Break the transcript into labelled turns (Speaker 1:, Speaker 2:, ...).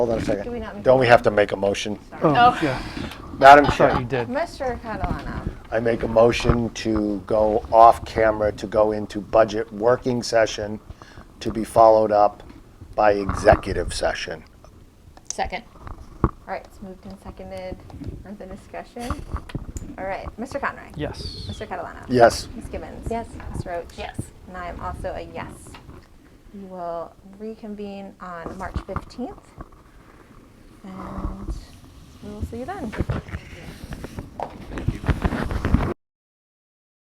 Speaker 1: Hold on a
Speaker 2: Do we not
Speaker 1: second.
Speaker 2: make
Speaker 1: Don't we have to make a motion?
Speaker 2: Oh.
Speaker 3: Oh, yeah,
Speaker 1: Madam
Speaker 3: thought
Speaker 1: Chair,
Speaker 3: you did.
Speaker 2: Mr. Catalano,
Speaker 1: I make a motion to go off camera to go into budget working session to be followed up by executive session.
Speaker 4: Second.
Speaker 2: all right, it's moved and seconded on the discussion. All right, Mr. Conroy.
Speaker 3: Yes.
Speaker 2: Mr. Catalano.
Speaker 1: Yes.
Speaker 2: Ms. Gibbons.
Speaker 4: Yes.
Speaker 2: Ms. Roach.
Speaker 4: Yes.
Speaker 2: And I am also a yes. We will reconvene on March 15th. And we will see you then.
Speaker 5: Thank you.